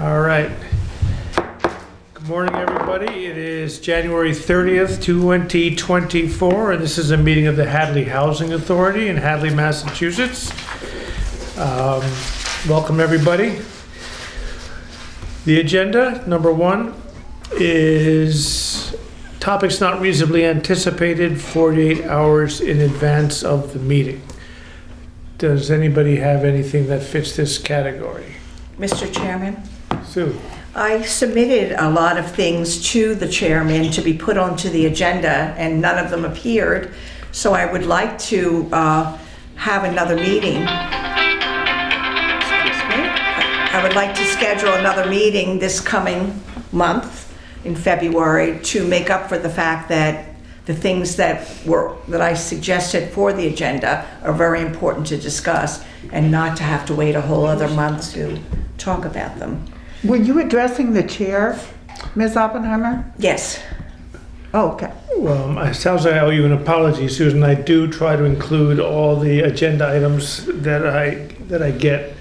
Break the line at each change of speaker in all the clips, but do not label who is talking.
All right. Good morning, everybody. It is January 30th, 2024, and this is a meeting of the Hadley Housing Authority in Hadley, Massachusetts. Um, Welcome, everybody. The agenda, number one, is topics not reasonably anticipated 48 hours in advance of the meeting. Does anybody have anything that fits this category?
Mr. Chairman,
Sue?
I submitted a lot of things to the chairman to be put onto the agenda, and none of them appeared. So I would like to uh, have another meeting. Excuse me. I would like to schedule another meeting this coming month in February to make up for the fact that the things that were, that I suggested for the agenda are very important to discuss and not to have to wait a whole other month to talk about them.
Were you addressing the chair, Ms. Oppenheimer?
Yes.
Oh, okay.
Well, it sounds like Um, I owe you an apology, Susan. I do try to include all the agenda items that I, that I get.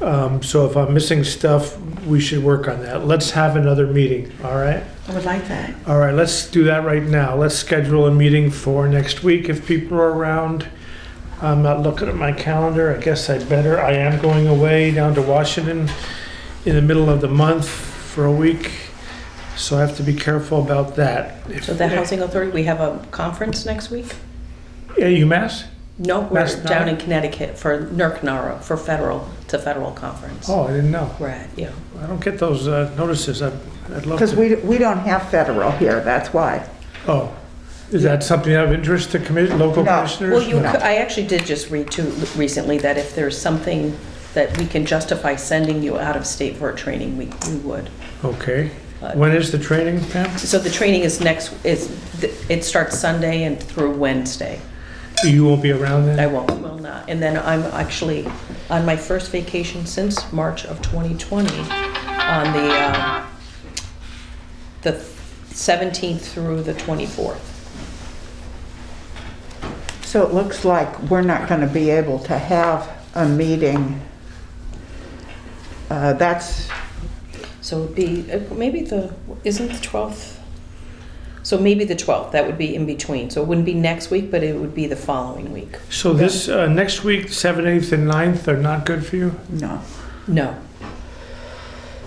Um, So if I'm missing stuff, we should work on that. Let's have another meeting, all right?
I would like that.
All right, let's do that right now. Let's schedule a meeting for next week if people are around. I'm not looking at my calendar. I guess I better. I am going away down to Washington in the middle of the month for a week, so I have to be careful about that.
So the Housing Authority, we have a conference next week?
Yeah, UMass?
No, we're
That's not-
down in Connecticut for NERC NARA, for federal, it's a federal conference.
Oh, I didn't know.
We're at, yeah.
I don't get those uh, notices. I'd I'd love
Because
to.
we, we don't have federal here, that's why.
Oh, is that something of interest to commi- local
No.
commissioners?
Well, you,
No.
could- I actually did just read too recently that if there's something that we can justify sending you out of state for a training, we, we would.
Okay.
Uh,
When is the training, Pam?
So the training is next, is, it starts Sunday and through Wednesday.
You won't be around then?
I won't, will not. And then I'm actually on my first vacation since March of 2020, on the, um, the 17th through the 24th.
So it looks like we're not going to be able to have a meeting. Uh, That's,
So it'd be, uh, maybe the, isn't the 12th? So maybe the 12th, that would be in between. So it wouldn't be next week, but it would be the following week.
So this, uh, next week, 7th, 8th, and 9th are not good for you?
no.
No,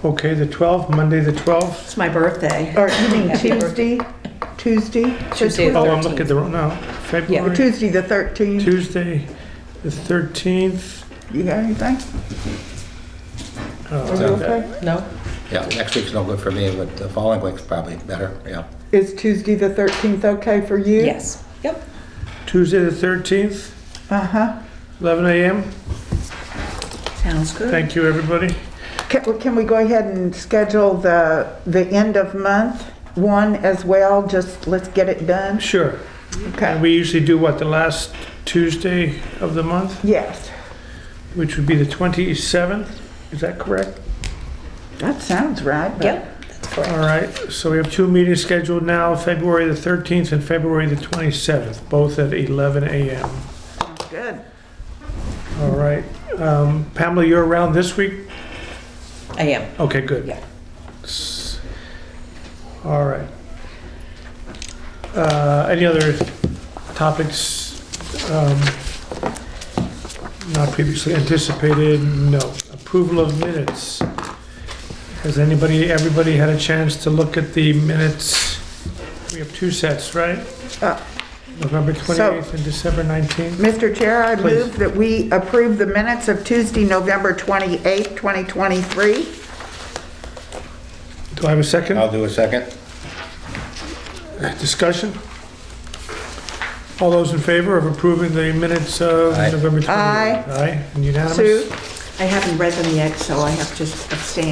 Okay, the 12th, Monday, the 12th?
It's my birthday.
Or you mean
Happy
Tuesday? Tuesday?
Tuesday the
Oh, I'm looking at
13th.
the, wrong no,
Or
February,
Tuesday, the 13th?
Tuesday, the 13th.
You got anything?
Oh,
Are you okay?
No?
Yeah, next week's no good for me, but the following week's probably better, yeah.
Is Tuesday, the 13th okay for you?
Yes. Yep.
Tuesday, the 13th,
Uh-huh.
11 a.m.
Sounds good.
Thank you, everybody.
Can, well, can we go ahead and schedule the, the end of month one as well? Just let's get it done?
Sure. And
Okay.
we usually do what, the last Tuesday of the month,
Yes.
which would be the 27th? Is that correct?
That sounds right. but-
Yep, that's correct.
All right, so we have two meetings scheduled now, February the 13th and February the 27th, both at 11 a.m.
Good.
All right. Um, Pamela, you're around this week?
I am.
Okay, good.
Yeah.
S- All right. Uh, Any other topics um, not previously anticipated? No. Approval of minutes. Has anybody, everybody had a chance to look at the minutes? We have two sets, right?
Uh,
November 28th and December 19th?
Mr. Chair, I
Please.
move that we approve the minutes of Tuesday, November 28th, 2023.
Do I have a second?
I'll do a second.
Discussion? All those in favor of approving the minutes of
Aye.
November 28th?
Aye.
Aye, and unanimous?
Sue?
I haven't read them yet, so I have to abstain.